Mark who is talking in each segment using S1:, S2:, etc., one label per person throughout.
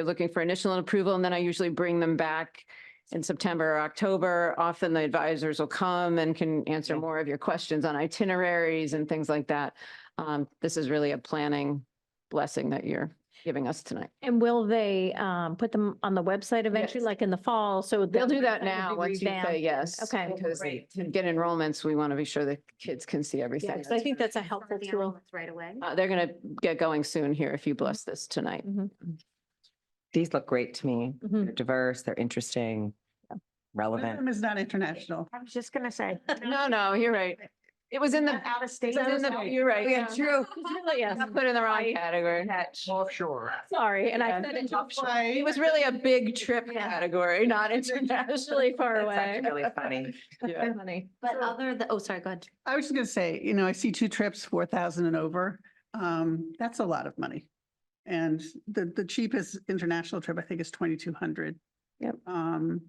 S1: They're looking for initial approval and then I usually bring them back in September or October. Often the advisors will come and can answer more of your questions on itineraries and things like that. Um, this is really a planning blessing that you're giving us tonight.
S2: And will they um put them on the website eventually,
S1: Yes.
S2: like in the fall? So
S1: They'll do that
S2: website will
S1: now,
S2: be
S1: once you say
S2: revamped.
S1: yes.
S2: Okay.
S1: Because
S3: Great.
S1: to get enrollments, we want to be sure the kids can see
S2: Yeah,
S1: everything.
S2: 'cause I think that's a helpful
S3: Confirm the
S2: tool.
S3: enrollments Right away.
S1: Uh, they're going to get going soon here if you bless this tonight.
S2: Mhm,
S4: These look great to me.
S2: mhm.
S4: They're diverse, they're interesting, relevant.
S5: Wyndham is not international.
S3: I was just gonna say.
S1: No, no, you're right. It was in the,
S3: Out of state.
S1: it was in the- you're right.
S2: Oh,
S4: Yeah, true.
S1: I Put in the wrong category.
S6: Offshore.
S2: Sorry, and I
S1: Yeah.
S2: said it
S1: It was really a big trip
S2: Yeah.
S1: category, not international.
S2: really far
S4: That's
S2: away.
S4: actually really funny.
S1: Yeah.
S2: Funny.
S3: But other, than- oh, sorry, go ahead.
S5: I was just gonna say, you know, I see two trips, four thousand and over. Um, that's a lot of money. And the, the cheapest international trip, I think, is twenty-two hundred.
S1: Yep.
S5: Um,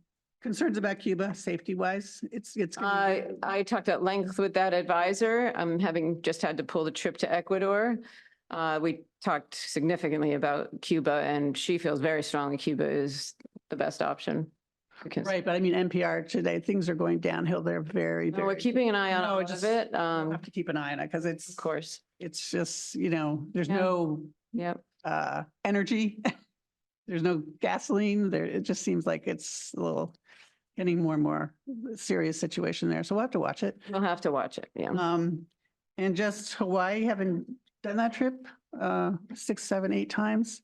S5: concerns about Cuba, safety wise, it's, it's. gonna
S1: I,
S5: be-
S1: I talked at length with that advisor. I'm having just had to pull the trip to Ecuador. Uh, we talked significantly about Cuba and she feels very strongly Cuba is the best option. for kids.
S5: Right, but I mean, NPR today, things are going downhill. They're very,
S1: No, We're
S5: very.
S1: keeping an eye on
S5: No,
S1: all
S5: just-
S1: of it. Um,
S5: Have to keep an eye on it because it's,
S1: of course.
S5: it's just, you know, there's
S1: Yeah.
S5: no,
S1: Yep.
S5: uh, energy. There's no gasoline there. It just seems like it's a little getting more and more serious situation there. So we'll have to watch it.
S1: We'll have to watch it. Yeah.
S5: Um, and just Hawaii, haven't done that trip, uh, six, seven, eight times.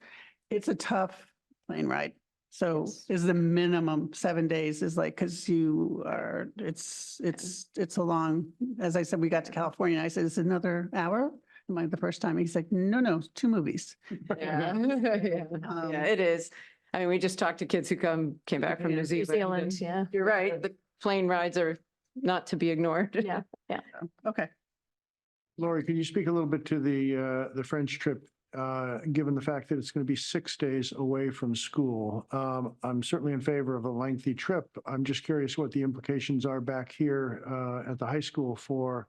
S5: It's a tough plane ride. So
S1: Yes.
S5: is the minimum seven days is like, cause you are, it's, it's, it's a long, as I said, we got to California. and I said, it's another hour. Am I the first time? He's like, no, no, it's two movies.
S1: Yeah. Yeah,
S5: Um,
S1: it is. I mean, we just talked to kids who come, came back from New
S2: New
S1: Zealand. and
S2: Zealand, yeah.
S1: You're right. The plane rides are not to be ignored.
S2: Yeah.
S5: Okay.
S6: Lori, can you speak a little bit to the, uh, the French trip? Uh, given the fact that it's going to be six days away from school, um, I'm certainly in favor of a lengthy trip. I'm just curious what the implications are back here, uh, at the high school for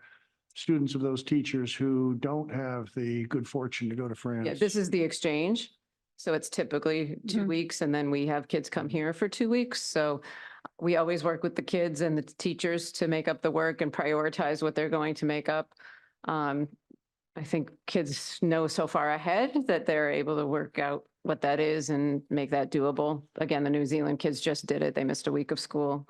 S6: students of those teachers who don't have the good fortune to go to France.
S1: Yeah, this is the exchange. So it's typically two
S5: Mhm.
S1: weeks and then we have kids come here for two weeks. So we always work with the kids and the teachers to make up the work and prioritize what they're going to make up. Um, I think kids know so far ahead that they're able to work out what that is and make that doable. Again, the New Zealand kids just did it. They missed a week of school.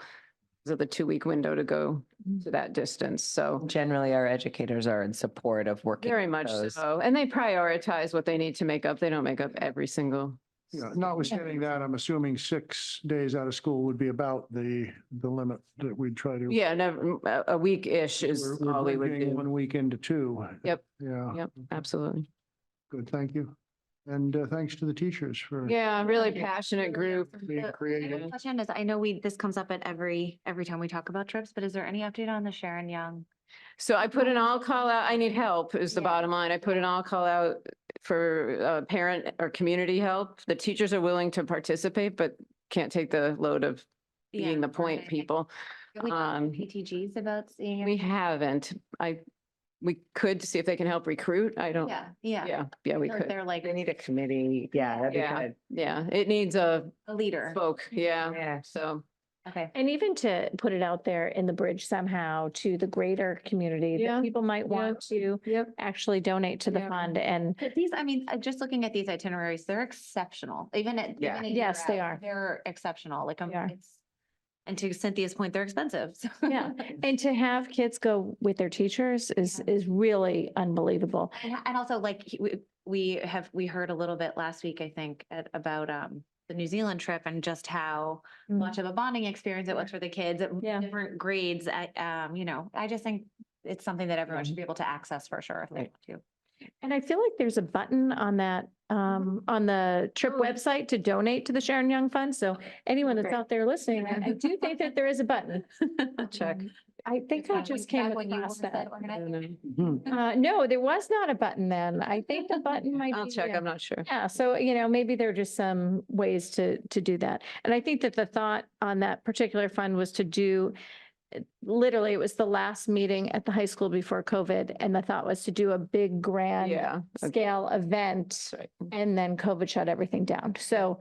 S1: So the two-week window to go to that distance. So.
S4: Generally, our educators are in support of working.
S1: Very
S4: with
S1: much
S4: those.
S1: so. And they prioritize what they need to make up. They don't make up every single.
S6: Yeah, notwithstanding that, I'm assuming six days out of school would be about the, the limit that we'd try to.
S1: Yeah, never, a, a week-ish is
S6: We're- we're
S1: all we would
S6: bridging
S1: do.
S6: One weekend to two.
S1: Yep.
S6: Yeah.
S1: Yep, absolutely.
S6: Good, thank you. And uh, thanks to the teachers for
S1: Yeah, really
S3: Yeah.
S1: passionate group.
S6: being creative.
S3: Question is, I know we, this comes up at every, every time we talk about trips, but is there any update on the Sharon Young?
S1: So I put an all call out, I need help is the
S3: Yeah.
S1: bottom line. I put an all call out for uh, parent or community help. The teachers are willing to participate, but can't take the load of being the point people.
S3: Have we talked
S1: um,
S3: to PTGs about seeing?
S1: We
S3: if-
S1: haven't. I, we could see if they can help recruit. I don't,
S3: Yeah, yeah.
S1: yeah, yeah, we
S3: Or if
S1: could.
S3: They're like
S4: They need a committee. Yeah, that'd be
S1: Yeah.
S4: good.
S1: Yeah, it needs a
S3: a leader.
S1: spoke, yeah,
S4: Yeah.
S1: so.
S3: Okay.
S2: And even to put it out there in the bridge somehow to the greater community
S1: Yeah,
S2: that people might
S1: yeah.
S2: want to
S1: Yep.
S2: actually donate to the
S1: Yeah.
S2: fund and
S3: But these, I mean, uh, just looking at these itineraries, they're exceptional, even at.
S4: Yeah.
S3: even a year
S2: Yes, they
S3: out,
S2: are.
S3: They're exceptional, like, um,
S2: They are.
S3: it's, and to Cynthia's point, they're expensive. so-
S2: Yeah. And to have kids go with their teachers is, is really unbelievable.
S3: And, and also like, he- we, we have, we heard a little bit last week, I think, at, about, um, the New Zealand trip and just how much of a bonding experience it was for the kids at
S2: Yeah.
S3: different grades. I, um, you know, I just think it's something that everyone should be able to access for sure if they
S4: Right.
S3: want to.
S2: And I feel like there's a button on that, um, on the trip
S3: Mm-hmm. Oh.
S2: website to donate to the Sharon Young Fund. So anyone that's
S3: Great.
S2: out there listening, I I do think that there is a button. Um,
S1: check.
S2: I think I
S3: When-
S2: just
S3: back
S2: came
S3: when you
S2: across
S3: said
S2: that.
S3: organize-
S2: Uh, no, there was not a button then. I think the button might be.
S1: I'll check,
S2: there.
S1: I'm not sure.
S2: Yeah, so, you know, maybe there are just some ways to, to do that. And I think that the thought on that particular fund was to do, literally, it was the last meeting at the high school before COVID, and the thought was to do a big grand
S1: Yeah.
S2: scale event,
S1: Sorry.
S2: and then COVID shut everything down. So